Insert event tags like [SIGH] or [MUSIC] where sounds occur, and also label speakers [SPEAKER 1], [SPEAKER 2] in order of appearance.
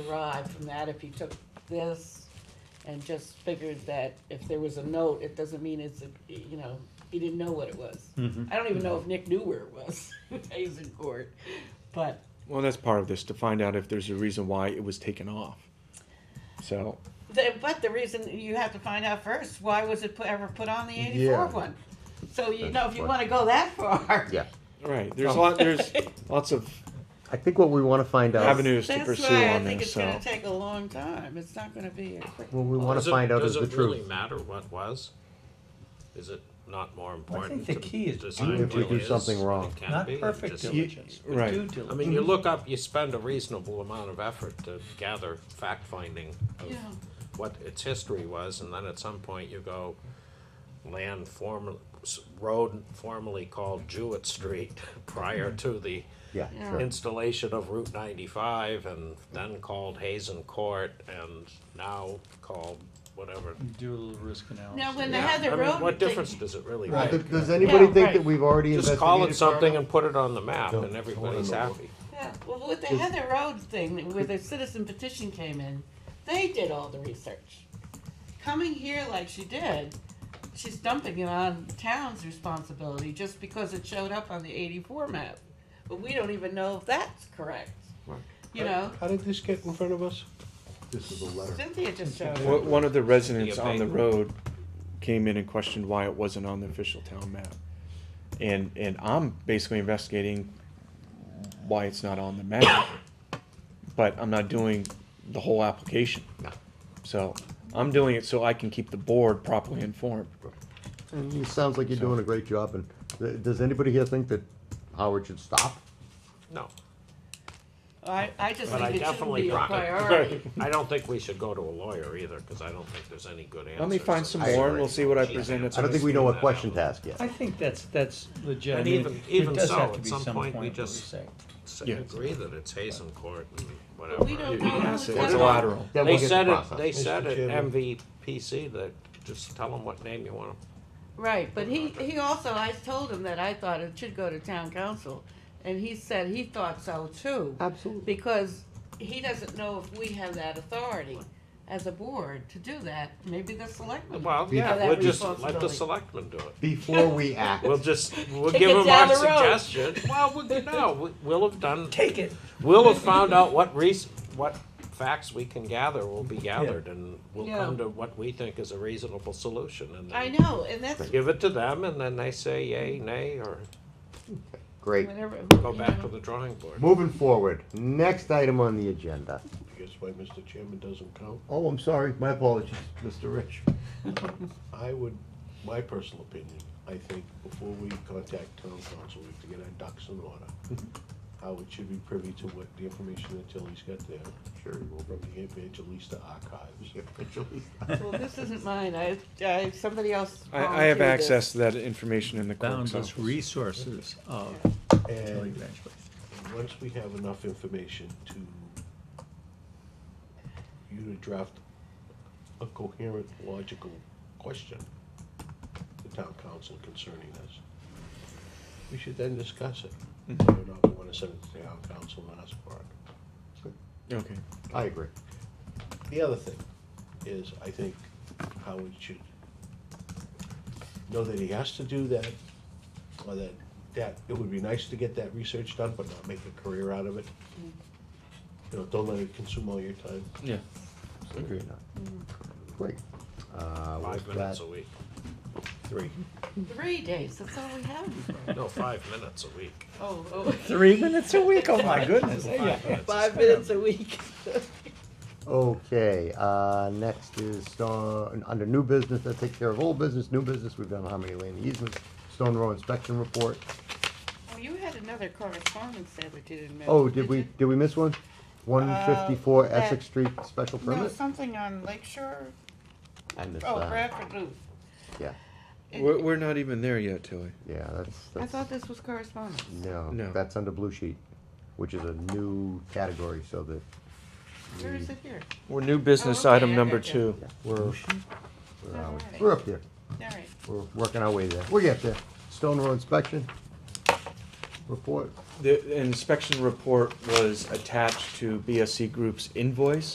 [SPEAKER 1] derived from that if you took this and just figured that if there was a note, it doesn't mean it's, a you know, he didn't know what it was.
[SPEAKER 2] Mm-hmm.
[SPEAKER 3] Mhm.
[SPEAKER 1] I don't even know if Nick knew where it was, [LAUGHS] days in court, but,
[SPEAKER 3] Well, that's part of this to find out if there's a reason why it was taken off. So,
[SPEAKER 1] the- but the reason, you have to find out first, why was it pu- ever put on the
[SPEAKER 4] Yeah.
[SPEAKER 1] eighty-four one? So you
[SPEAKER 4] That's
[SPEAKER 1] know, if you
[SPEAKER 4] right.
[SPEAKER 1] wanna go that [LAUGHS] far.
[SPEAKER 4] Yeah,
[SPEAKER 3] right, there's a lot, there's lots of
[SPEAKER 4] I think what we want to find out,
[SPEAKER 3] Avenue- Avenues to pursue
[SPEAKER 1] That's
[SPEAKER 3] on
[SPEAKER 1] why I think
[SPEAKER 3] this,
[SPEAKER 1] it's gonna
[SPEAKER 3] so.
[SPEAKER 1] take a long time, it's not gonna be a quick.
[SPEAKER 4] what we want
[SPEAKER 2] Does
[SPEAKER 4] to
[SPEAKER 2] it-
[SPEAKER 4] find out is the
[SPEAKER 2] Does it really
[SPEAKER 4] truth.
[SPEAKER 2] matter what was? Is it not more
[SPEAKER 5] Well, I
[SPEAKER 2] important?
[SPEAKER 5] think the
[SPEAKER 2] to
[SPEAKER 5] key is
[SPEAKER 2] decide
[SPEAKER 5] due
[SPEAKER 2] what
[SPEAKER 4] we do
[SPEAKER 2] is
[SPEAKER 4] something
[SPEAKER 2] than
[SPEAKER 4] wrong.
[SPEAKER 2] it can
[SPEAKER 5] Not
[SPEAKER 2] be?
[SPEAKER 5] perfect Mm-hmm.
[SPEAKER 2] Just-
[SPEAKER 5] diligence, but
[SPEAKER 3] Right.
[SPEAKER 5] due
[SPEAKER 2] I mean,
[SPEAKER 5] diligence.
[SPEAKER 2] you look up, you spend a reasonable amount of effort to gather fact-finding of
[SPEAKER 1] Yeah.
[SPEAKER 2] what its history was, and then at some point you go, land formerly, road formerly called Jewett Street [LAUGHS] prior
[SPEAKER 5] Mm-hmm.
[SPEAKER 2] to the
[SPEAKER 4] Yeah,
[SPEAKER 1] Yeah.
[SPEAKER 4] sure.
[SPEAKER 2] installation of Route ninety-five, and then called Hazen Court, and now called whatever.
[SPEAKER 5] Do a little risk analysis.
[SPEAKER 1] Now, when they
[SPEAKER 2] Yeah,
[SPEAKER 1] had
[SPEAKER 2] I
[SPEAKER 1] the
[SPEAKER 2] mean,
[SPEAKER 1] road.
[SPEAKER 2] What
[SPEAKER 1] they-
[SPEAKER 2] difference does it really
[SPEAKER 4] Well,
[SPEAKER 2] make?
[SPEAKER 4] th- Does anybody
[SPEAKER 1] Yeah,
[SPEAKER 4] think
[SPEAKER 1] right.
[SPEAKER 4] that we've already
[SPEAKER 2] Just call it
[SPEAKER 4] investigated far
[SPEAKER 2] something
[SPEAKER 4] enough?
[SPEAKER 2] and put it on the map,
[SPEAKER 4] No,
[SPEAKER 2] and
[SPEAKER 4] it's
[SPEAKER 2] everybody's
[SPEAKER 4] all in the
[SPEAKER 2] happy.
[SPEAKER 1] Yeah, well, with the Heather Road thing, where the citizen petition came in, they did all the research. Coming here like she did, she's dumping it on town's responsibility just because it showed up on the eighty-four map. But we don't even know if that's correct, you know?
[SPEAKER 6] How did this get in front of us?
[SPEAKER 4] This is a letter.
[SPEAKER 1] Cynthia just showed
[SPEAKER 3] Wha-
[SPEAKER 1] it.
[SPEAKER 3] One of the residents
[SPEAKER 2] The
[SPEAKER 3] on the
[SPEAKER 2] abatement.
[SPEAKER 3] road came in and questioned why it wasn't on the official town map. And, and I'm basically investigating why it's not on the map, but I'm not doing the whole application. So I'm doing it so I can keep the board properly informed.
[SPEAKER 4] And Mm, it sounds like you're doing a great job, and th- does anybody here think that Howard should stop?
[SPEAKER 2] No,
[SPEAKER 1] I, I just
[SPEAKER 2] but I
[SPEAKER 1] think it shouldn't
[SPEAKER 2] definitely,
[SPEAKER 1] be a
[SPEAKER 2] pro- [LAUGHS]
[SPEAKER 1] priority.
[SPEAKER 2] I don't think we should go to a lawyer either, because I don't think there's any good answers.
[SPEAKER 3] Let me find
[SPEAKER 2] in
[SPEAKER 3] some
[SPEAKER 2] this
[SPEAKER 3] more and
[SPEAKER 2] area.
[SPEAKER 3] we'll see what I present at the
[SPEAKER 4] I don't
[SPEAKER 3] next
[SPEAKER 4] think we know
[SPEAKER 3] meeting.
[SPEAKER 4] what question to ask yet.
[SPEAKER 5] I think that's, that's legit. I
[SPEAKER 2] And
[SPEAKER 5] mean,
[SPEAKER 2] even-
[SPEAKER 5] there
[SPEAKER 2] even
[SPEAKER 5] does
[SPEAKER 2] so,
[SPEAKER 5] have to
[SPEAKER 2] at
[SPEAKER 5] be
[SPEAKER 2] some point we
[SPEAKER 5] of
[SPEAKER 2] just-
[SPEAKER 5] oversight.
[SPEAKER 2] S-
[SPEAKER 3] Yeah.
[SPEAKER 2] Agree that it's Hazen Court and whatever.
[SPEAKER 1] But we don't
[SPEAKER 3] You- you
[SPEAKER 1] know
[SPEAKER 3] can
[SPEAKER 1] who's
[SPEAKER 3] say
[SPEAKER 1] got
[SPEAKER 3] It's
[SPEAKER 1] it.
[SPEAKER 3] lateral.
[SPEAKER 4] Then
[SPEAKER 2] They
[SPEAKER 4] we'll get the
[SPEAKER 2] said it,
[SPEAKER 4] process.
[SPEAKER 2] they said
[SPEAKER 6] Mr.
[SPEAKER 2] at
[SPEAKER 6] Chairman.
[SPEAKER 2] MVPC that, just tell them what name you want 'em.
[SPEAKER 1] Right, but he, he also, I told him that I thought it should go to town council, and he said he thought so too.
[SPEAKER 4] Absolutely.
[SPEAKER 1] Because he doesn't know if we have that authority as a board to do that, maybe the selectmen.
[SPEAKER 2] Well,
[SPEAKER 4] Be-
[SPEAKER 2] yeah,
[SPEAKER 1] that
[SPEAKER 2] we'll just let the
[SPEAKER 1] responsibility.
[SPEAKER 2] selectmen do it.
[SPEAKER 4] Before we act,
[SPEAKER 2] We'll just, we'll
[SPEAKER 1] Take
[SPEAKER 2] give
[SPEAKER 1] it
[SPEAKER 2] them
[SPEAKER 1] down
[SPEAKER 2] our
[SPEAKER 1] the road.
[SPEAKER 2] suggestion. Well, we- no, we- we'll have done,
[SPEAKER 5] Take it.
[SPEAKER 2] We'll have found out what reas what facts we can gather will be gathered, and we'll
[SPEAKER 1] Yeah.
[SPEAKER 2] come to what we think is a reasonable solution, and
[SPEAKER 1] I
[SPEAKER 2] then
[SPEAKER 1] know, and that's
[SPEAKER 2] give it to them, and then they say yay, nay, or
[SPEAKER 4] great.
[SPEAKER 1] whenever.
[SPEAKER 2] go
[SPEAKER 1] you
[SPEAKER 2] back
[SPEAKER 1] know.
[SPEAKER 2] to the drawing board.
[SPEAKER 4] Moving forward, next item on the agenda.
[SPEAKER 6] I guess why Mr. Chairman doesn't count.
[SPEAKER 4] Oh, I'm sorry, my apologies, Mr. Rich.
[SPEAKER 6] I would, my personal opinion, I think before we contact town council, we have to get our ducks in order. Howard should be privy to what the information that Tilly's got there. Sure. From the Evangelista archives.
[SPEAKER 1] Well, this isn't mine, I, I, somebody else.
[SPEAKER 3] I, I have
[SPEAKER 1] volunteered Oh, this.
[SPEAKER 3] access to that information in the clerk's
[SPEAKER 5] Boundless
[SPEAKER 3] office.
[SPEAKER 5] resources of Tilly
[SPEAKER 6] And
[SPEAKER 5] Ranch Place.
[SPEAKER 6] once we have enough information to, you to draft a coherent, logical question to town council concerning this, we should then discuss it. Whether or not we wanna send it to town council and ask for it.
[SPEAKER 3] Okay.
[SPEAKER 4] I agree.
[SPEAKER 6] The other thing is, I think Howard should know that he has to do that, or that, that, it would be nice to get that research done, but not make a career out of it. You know, don't let it consume all your time.
[SPEAKER 3] Yeah.
[SPEAKER 4] Agree or not? Great. Uh,
[SPEAKER 2] Five
[SPEAKER 4] with
[SPEAKER 2] minutes
[SPEAKER 4] that,
[SPEAKER 2] a week.
[SPEAKER 4] three.
[SPEAKER 1] Three days, that's all we have.
[SPEAKER 2] No, five minutes a week.
[SPEAKER 1] Oh, oh,
[SPEAKER 5] Three minutes a week, oh my goodness.
[SPEAKER 2] Five minutes.
[SPEAKER 1] five minutes a week.
[SPEAKER 4] Okay, uh, next is, uh, under new business, that takes care of old business, new business, we've done Harmony Lane easements, Stone Row inspection report.
[SPEAKER 1] Well, Oh, you had another correspondence there that you didn't mention.
[SPEAKER 4] Oh, did we,
[SPEAKER 1] you?
[SPEAKER 4] did we miss one? One fifty-four
[SPEAKER 1] Uh, that-
[SPEAKER 4] Essex Street special
[SPEAKER 1] No,
[SPEAKER 4] permit?
[SPEAKER 1] something on Lake Shore,
[SPEAKER 4] I missed
[SPEAKER 1] oh,
[SPEAKER 4] that.
[SPEAKER 1] Bradford Loop.
[SPEAKER 4] Yeah,
[SPEAKER 1] It-
[SPEAKER 3] We're, we're not even there yet, Tilly.
[SPEAKER 4] yeah, that's,
[SPEAKER 1] I
[SPEAKER 4] that's,
[SPEAKER 1] thought this was correspondence.
[SPEAKER 4] no,
[SPEAKER 3] No.
[SPEAKER 4] that's under blue sheet, which is a new category, so that,
[SPEAKER 1] Where is it here?
[SPEAKER 3] We're new business
[SPEAKER 1] Oh, okay,
[SPEAKER 3] item
[SPEAKER 1] I
[SPEAKER 3] number
[SPEAKER 1] gotcha.
[SPEAKER 3] two.
[SPEAKER 4] we're, where are
[SPEAKER 1] Alright.
[SPEAKER 4] we? We're up there,
[SPEAKER 1] All right.
[SPEAKER 4] we're working our way there, we'll get there. Stone Row inspection, report?
[SPEAKER 3] The inspection report was attached to BSC Group's invoice.